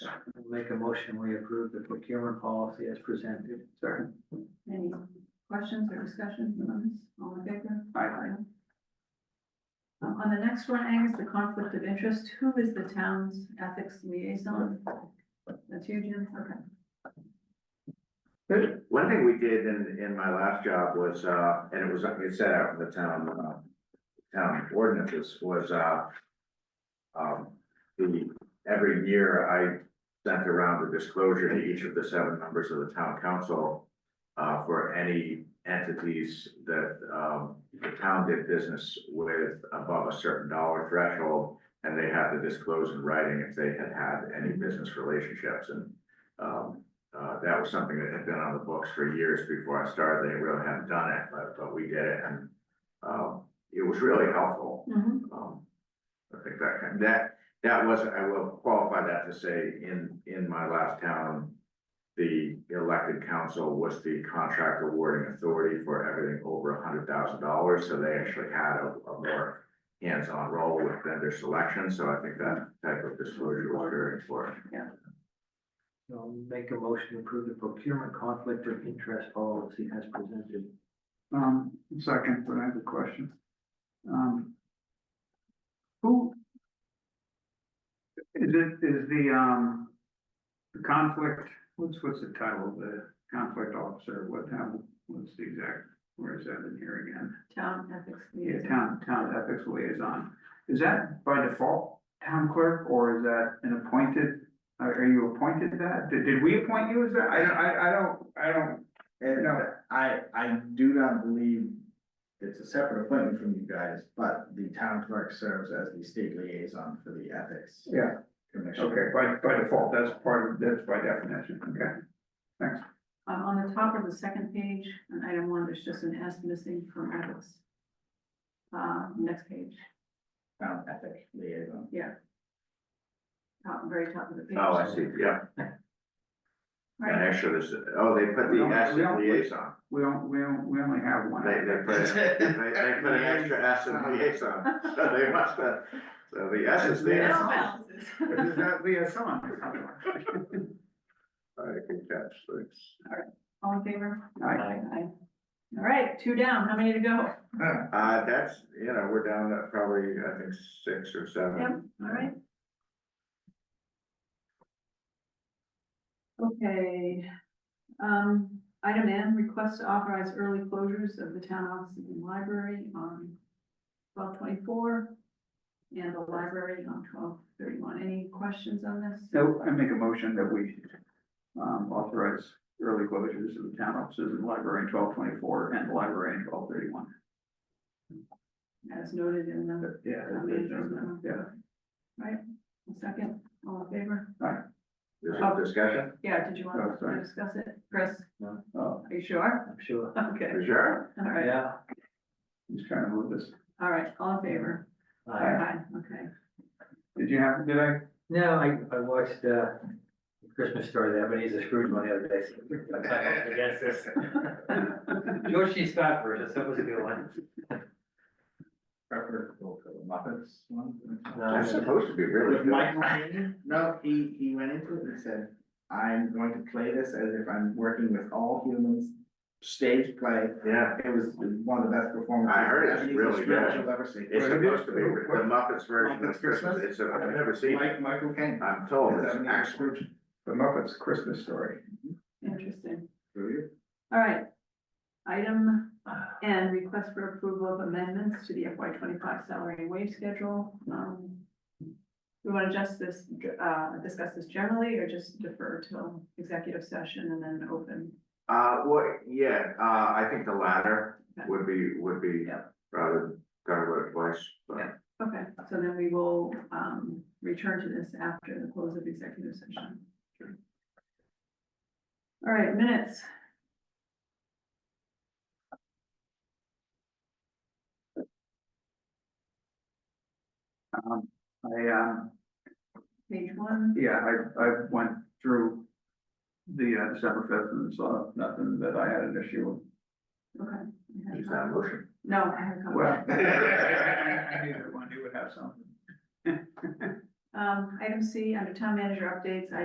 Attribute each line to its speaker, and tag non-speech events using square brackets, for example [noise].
Speaker 1: Make a motion, we approve the procurement policy as presented.
Speaker 2: Sure.
Speaker 3: Any questions or discussion on this? All in favor? Aye. Um, On the next one, Angus, the conflict of interest, who is the town's ethics liaison? That's you, Jim, okay.
Speaker 2: Good.
Speaker 4: One thing we did in, in my last job was, uh, and it was, it set out in the town, uh, town ordinances was, uh, um, the, every year I sent around a disclosure to each of the seven members of the town council uh, for any entities that, um, the town did business with above a certain dollar threshold. And they had to disclose in writing if they had had any business relationships and, um, uh, that was something that had been on the books for years before I started. They really hadn't done it, but, but we did it and, um, it was really helpful.
Speaker 3: Mhm.
Speaker 4: Um, I think that, kind- that, that was, I will qualify that to say, in, in my last town, the elected council was the contract awarding authority for everything over a hundred thousand dollars, so they actually had a, a more hands-on role with vendor selection, so I think that type of disclosure was very important.
Speaker 1: So make a motion, to approve the procurement conflict of interest policy as presented.
Speaker 2: Um, second, but I have a question. Um. Who? Is it, is the, um, the conflict, what's, what's the title of the conflict officer? What, how, what's the exact, where is that in here again?
Speaker 3: Town ethics
Speaker 2: Yeah,
Speaker 3: liaison.
Speaker 2: town, town ethics liaison. Is that by default town clerk or is that an appointed? Are, are you appointed that? Did, did we appoint you as that? I, don't- I, I don't, I don't,
Speaker 5: And
Speaker 2: No.
Speaker 5: I, I do not believe it's a separate appointment from you guys, but the town clerk serves as the state liaison for the ethics
Speaker 2: yeah.
Speaker 5: commission.
Speaker 2: Okay, by, by default, that's part of, that's by definition, okay.
Speaker 3: Um, on the top of the second page, on item one, there's just an S missing from ethics. Uh, next page,
Speaker 5: Town ethic liaison.
Speaker 3: top, very top of the page.
Speaker 4: Oh, I see, yeah.
Speaker 3: All
Speaker 4: And
Speaker 3: right.
Speaker 4: actually, this, oh, they put
Speaker 2: We
Speaker 4: the
Speaker 2: don't-
Speaker 4: S
Speaker 2: we
Speaker 4: in
Speaker 2: don't-
Speaker 4: liaison,
Speaker 2: We don't, we don't, we only have one.
Speaker 4: they, they put, they, they put an extra S in liaison, so they must have, so the S is there.
Speaker 3: No
Speaker 4: I
Speaker 3: balances.
Speaker 2: Is that liaison? All
Speaker 4: can catch, thanks.
Speaker 3: All in favor?
Speaker 2: right,
Speaker 3: Aye. All right, two down, how many to go?
Speaker 4: Uh, that's, you know, we're down at probably, I think, six or
Speaker 3: Yep,
Speaker 4: seven.
Speaker 3: all right. Okay, um, item N, request to authorize early closures of the town offices and library on twelve twenty-four and the library on twelve thirty-one. Any questions on this?
Speaker 2: so I make a motion that we um, authorize early closures of the town offices and library in twelve twenty-four and the library in twelve thirty-one.
Speaker 3: As noted in the,
Speaker 2: Yeah.
Speaker 3: that- that-
Speaker 2: Yeah,
Speaker 3: second, all in favor?
Speaker 4: There's a discussion,
Speaker 3: Yeah, did you
Speaker 2: Oh,
Speaker 3: want to
Speaker 2: sorry.
Speaker 3: discuss it? Chris,
Speaker 2: oh,
Speaker 3: are you sure? [laughs]
Speaker 1: I'm sure.
Speaker 3: Okay,
Speaker 4: for sure.
Speaker 3: all right,
Speaker 1: Yeah.
Speaker 2: he's trying to move this.
Speaker 3: all right, all in favor?
Speaker 1: I-
Speaker 3: Aye, okay.
Speaker 2: Did you have, did I?
Speaker 1: No, I, I watched, uh, Christmas story, the Ebenezer Scrooge one the other day. so I'm not Against this.
Speaker 2: [laughs]
Speaker 1: George C. Scott version, that was a good one.
Speaker 5: Preferable for the Muppets one.
Speaker 4: That's supposed to be really
Speaker 5: Uh, With
Speaker 4: good.
Speaker 5: Michael Caine, no, he, he went into it and said, I'm going to play this as if I'm working with all humans. Stage play,
Speaker 4: Yeah,
Speaker 5: it was one of the best performances.
Speaker 4: I heard it's
Speaker 5: Ebenezer
Speaker 4: really
Speaker 5: Scrooge
Speaker 4: good.
Speaker 5: You'll ever see.
Speaker 4: it's supposed to be, the Muppets version of
Speaker 5: Muppets Christmas?
Speaker 4: Christmas, it's, a- I've never seen it,
Speaker 5: Mike, Michael Caine.
Speaker 4: I'm told,
Speaker 5: Is
Speaker 4: it's
Speaker 5: Ebenezer
Speaker 4: excellent.
Speaker 5: Scrooge, The Muppets Christmas Story.
Speaker 3: Interesting.
Speaker 5: Do you?
Speaker 3: All right. Item N, request for approval of amendments to the FY twenty-five salary and wage schedule. Um, We want to just this, uh, discuss this generally or just defer till executive session and then open?
Speaker 4: Uh, well, yeah, uh, I think the latter
Speaker 3: Okay.
Speaker 4: would be, would be
Speaker 3: Yeah.
Speaker 4: rather talk about it twice, but
Speaker 3: Yeah. Okay, so then we will um, return to this after the close of executive session. All right, minutes.
Speaker 2: Um, I, um,
Speaker 3: Page one,
Speaker 2: Yeah, I, I went through the uh, December fifth and saw nothing that I had an issue
Speaker 3: okay. I have
Speaker 4: it's not a
Speaker 3: a-
Speaker 4: motion.
Speaker 3: No, I have a comment.
Speaker 2: with. Well, I knew that one, you would have something.
Speaker 3: Um, item C, under town manager updates,